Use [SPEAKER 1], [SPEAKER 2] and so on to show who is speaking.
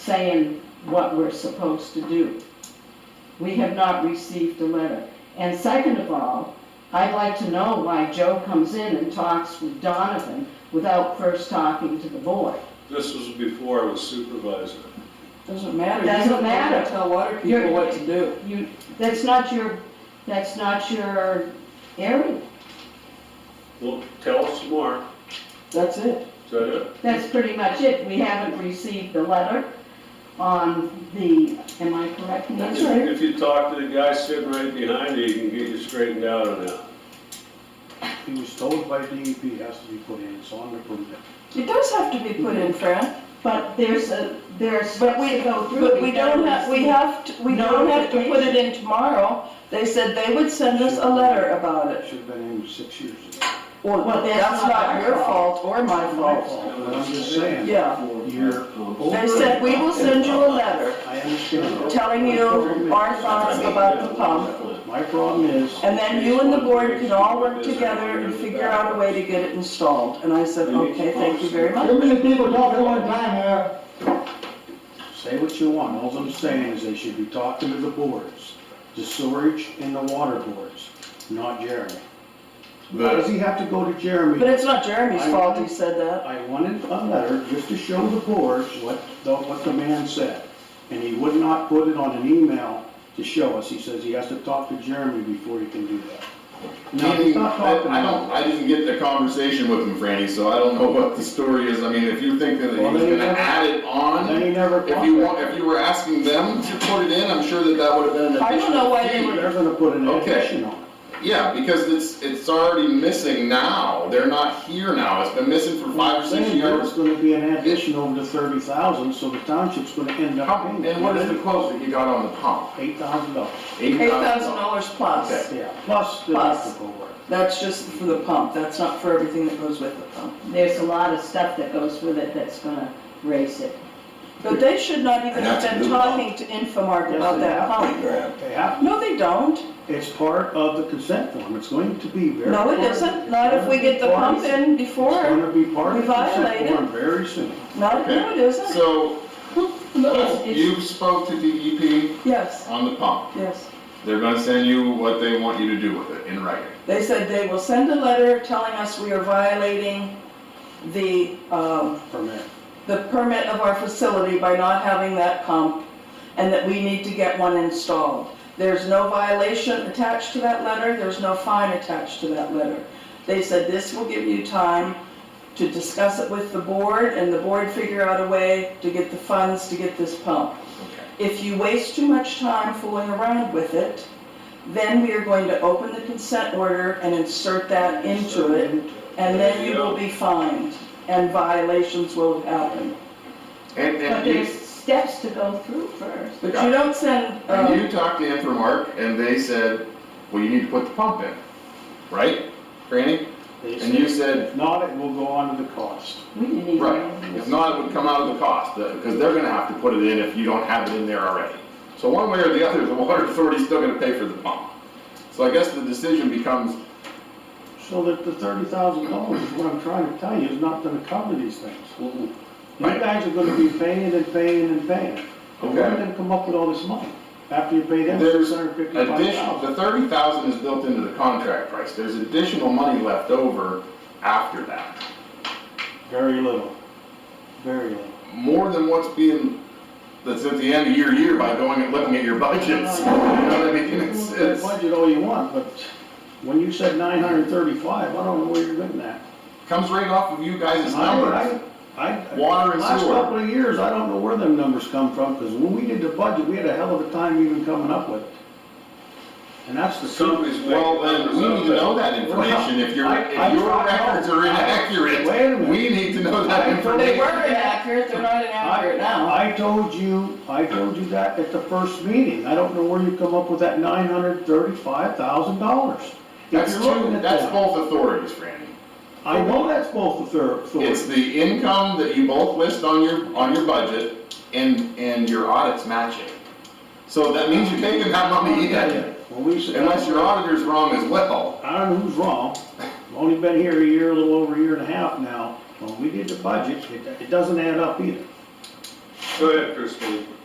[SPEAKER 1] saying what we're supposed to do. We have not received a letter. And second of all, I'd like to know why Joe comes in and talks with Donovan without first talking to the board.
[SPEAKER 2] This was before I was supervisor.
[SPEAKER 3] Doesn't matter. You
[SPEAKER 1] Doesn't
[SPEAKER 3] don't have to
[SPEAKER 1] matter.
[SPEAKER 3] Tell water
[SPEAKER 1] You're-
[SPEAKER 3] people what to do.
[SPEAKER 1] You, that's not your, that's not your area.
[SPEAKER 2] Well, tell us more.
[SPEAKER 3] That's it.
[SPEAKER 2] Is that it?
[SPEAKER 1] That's pretty much it. We haven't received the letter on the, am I correct? in
[SPEAKER 3] That's
[SPEAKER 2] If-
[SPEAKER 1] this?
[SPEAKER 3] right.
[SPEAKER 2] If you talk to the guy sitting right behind you, he can get you straightened out on that.
[SPEAKER 4] He was told by DEP it has to be put in, so I'm gonna prove it.
[SPEAKER 3] It does have to be put in, Fran,
[SPEAKER 1] But there's a, there's
[SPEAKER 3] but
[SPEAKER 1] steps
[SPEAKER 3] we,
[SPEAKER 1] to go through.
[SPEAKER 3] but we don't have, we
[SPEAKER 1] We've
[SPEAKER 3] have, to- we don't have to put it in tomorw. They said they would send us a letter about it.
[SPEAKER 4] Should have been in six years ago.
[SPEAKER 1] Well, that's
[SPEAKER 3] That's
[SPEAKER 1] not
[SPEAKER 3] not
[SPEAKER 1] our
[SPEAKER 3] your
[SPEAKER 1] fault.
[SPEAKER 3] fault or my fault.
[SPEAKER 4] But I'm just saying.
[SPEAKER 3] Yeah.
[SPEAKER 4] You're over.
[SPEAKER 3] They said, we will send you a letter
[SPEAKER 4] I understand.
[SPEAKER 3] telling you our thoughts about the pump.
[SPEAKER 4] My problem is,
[SPEAKER 3] And then you and the board can all work together and figure out a way to get it installed. And I said, okay, thank you very much.
[SPEAKER 5] Too many people talking at one time here.
[SPEAKER 4] say what you want, all I'm saying is they should be talking to the boards, the sewerage and the water boards, not Jeremy. Why does he have to go to Jeremy?
[SPEAKER 3] But it's not Jeremy's fault he said that.
[SPEAKER 4] I wanted a letter just to show the boards what, the- what the man said. And he would not put it on an email to show us. He says he has to talk to Jeremy before he can do that. Now, he's
[SPEAKER 6] Meaning,
[SPEAKER 4] not
[SPEAKER 6] I
[SPEAKER 4] talking
[SPEAKER 6] I don't,
[SPEAKER 4] about.
[SPEAKER 6] I didn't get the conversation with him, Franny, so I don't know what the story is. I mean, if you're thinking that he
[SPEAKER 4] Well,
[SPEAKER 6] was
[SPEAKER 4] then you
[SPEAKER 6] gonna
[SPEAKER 4] never-
[SPEAKER 6] add it
[SPEAKER 4] Then he
[SPEAKER 6] on,
[SPEAKER 4] never.
[SPEAKER 6] if you want, if you were asking them to put it in, I'm sure that that would have been an
[SPEAKER 3] I don't know why they
[SPEAKER 6] additional fee.
[SPEAKER 3] would-
[SPEAKER 4] They're gonna put an
[SPEAKER 6] Okay.
[SPEAKER 4] addition on it.
[SPEAKER 6] Yeah, because it's, it's already missing now. They're not here now. It's been missing for five or six
[SPEAKER 4] Saying that It's
[SPEAKER 6] years.
[SPEAKER 4] gonna be an addition over the thirty thousand, so the township's gonna end up paying.
[SPEAKER 6] And what is the quote that you got on the pump?
[SPEAKER 4] Eight thousand dollars,
[SPEAKER 3] Eight thousand dollars plus.
[SPEAKER 6] Okay.
[SPEAKER 4] yeah, plus the
[SPEAKER 3] Plus.
[SPEAKER 4] electrical work.
[SPEAKER 3] That's just for the pump. That's not for everything that goes with the pump.
[SPEAKER 1] There's a lot of stuff that goes with it that's gonna raise it.
[SPEAKER 3] But they should not even have been talking to Infomark about that pump.
[SPEAKER 4] They have,
[SPEAKER 3] No, they don't.
[SPEAKER 4] it's part of the consent form. It's going to be very.
[SPEAKER 3] No, it
[SPEAKER 4] important.
[SPEAKER 3] isn't. Not if we get the pump in
[SPEAKER 4] It's
[SPEAKER 3] before.
[SPEAKER 4] gonna be part of
[SPEAKER 3] we
[SPEAKER 4] the
[SPEAKER 3] violate
[SPEAKER 4] consent
[SPEAKER 3] it.
[SPEAKER 4] form very soon.
[SPEAKER 3] Not, no, it isn't.
[SPEAKER 6] So,
[SPEAKER 1] It's- it's-
[SPEAKER 6] you spoke to DEP
[SPEAKER 3] Yes,
[SPEAKER 6] on the pump.
[SPEAKER 3] yes.
[SPEAKER 6] They're gonna send you what they want you to do with it in writing.
[SPEAKER 3] They said they will send a letter telling us we are violating the, um,
[SPEAKER 4] Permit.
[SPEAKER 3] the permit of our facility by not having that pump, and that we need to get one installed. There's no violation attached to that letter, there's no fine attached to that letter. They said this will give you time to discuss it with the board, and the board figure out a way to get the funds to get this pump. If you waste too much time fooling around with it, then we are going to open the consent order and insert that into it, and then you will be fined, and violations will happen.
[SPEAKER 6] And,
[SPEAKER 1] But
[SPEAKER 6] and you
[SPEAKER 1] there's steps to go through first.
[SPEAKER 3] But you don't send,
[SPEAKER 4] Oh.
[SPEAKER 6] And
[SPEAKER 3] um,
[SPEAKER 6] you talked to Infomark and they said, well, you need to put the pump in, right, Franny?
[SPEAKER 4] They
[SPEAKER 6] And
[SPEAKER 4] said,
[SPEAKER 6] you said,
[SPEAKER 4] If not, it will go on to the cost.
[SPEAKER 1] We didn't even.
[SPEAKER 6] right, if not, it would come out of the cost, because they're gonna have to put it in if you don't have it in there already. So one way or the other, the water authority's still gonna pay for the pump. So I guess the decision becomes,
[SPEAKER 4] So that the thirty thousand dollars is what I'm trying to tell you, is not gonna cover these things. You
[SPEAKER 6] Mm-hmm. Right.
[SPEAKER 4] guys are gonna be paying and paying and paying. And where are
[SPEAKER 6] Okay.
[SPEAKER 4] they gonna come up with all this money? After you pay them
[SPEAKER 6] There's
[SPEAKER 4] six hundred fifty-five
[SPEAKER 6] addition,
[SPEAKER 4] thousand?
[SPEAKER 6] the thirty thousand is built into the contract price, there's additional money left over after that.
[SPEAKER 4] Very little, very little.
[SPEAKER 6] More than what's being, that's at the end of your year by going and looking at your budgets, you know what I mean?
[SPEAKER 4] You
[SPEAKER 6] It's-
[SPEAKER 4] can
[SPEAKER 6] it's-
[SPEAKER 4] budget all you want, but when you said nine hundred thirty-five, I don't know where you're getting that.
[SPEAKER 6] comes right off of you guys'
[SPEAKER 4] I,
[SPEAKER 6] numbers.
[SPEAKER 4] I, I-
[SPEAKER 6] Water and
[SPEAKER 4] Last couple
[SPEAKER 6] sewer.
[SPEAKER 4] of years, I don't know where them numbers come from, because when we did the budget, we had a hell of a time even coming up with it. And that's the truth.
[SPEAKER 2] Somebody's making
[SPEAKER 6] Well, then,
[SPEAKER 2] numbers
[SPEAKER 6] we
[SPEAKER 2] up
[SPEAKER 6] need to know that
[SPEAKER 4] Well,
[SPEAKER 6] information, if your,
[SPEAKER 4] I- I
[SPEAKER 6] if your
[SPEAKER 4] tried-
[SPEAKER 6] records are
[SPEAKER 4] Wait a
[SPEAKER 6] inaccurate,
[SPEAKER 4] minute.
[SPEAKER 6] we need to know that
[SPEAKER 4] I-
[SPEAKER 3] they
[SPEAKER 6] information.
[SPEAKER 3] were inaccurate, they're not inaccurate now.
[SPEAKER 4] I I told you, I told you that at the first meeting, I don't know where you come up with that nine hundred thirty-five thousand dollars.
[SPEAKER 6] That's two, that's both authorities, Franny.
[SPEAKER 4] I know that's both the third,
[SPEAKER 6] It's
[SPEAKER 4] third,
[SPEAKER 6] the income that you both list on your, on your budget, and, and your audits match it. So that means you're taking that
[SPEAKER 4] Oh,
[SPEAKER 6] money in,
[SPEAKER 4] Well, we said-
[SPEAKER 6] unless your auditor's wrong as well.
[SPEAKER 4] I don't know who's wrong, I've only been here a year, a little over a year and a half now, when we did the budget, it, it doesn't add up either.
[SPEAKER 2] Go ahead, Christine.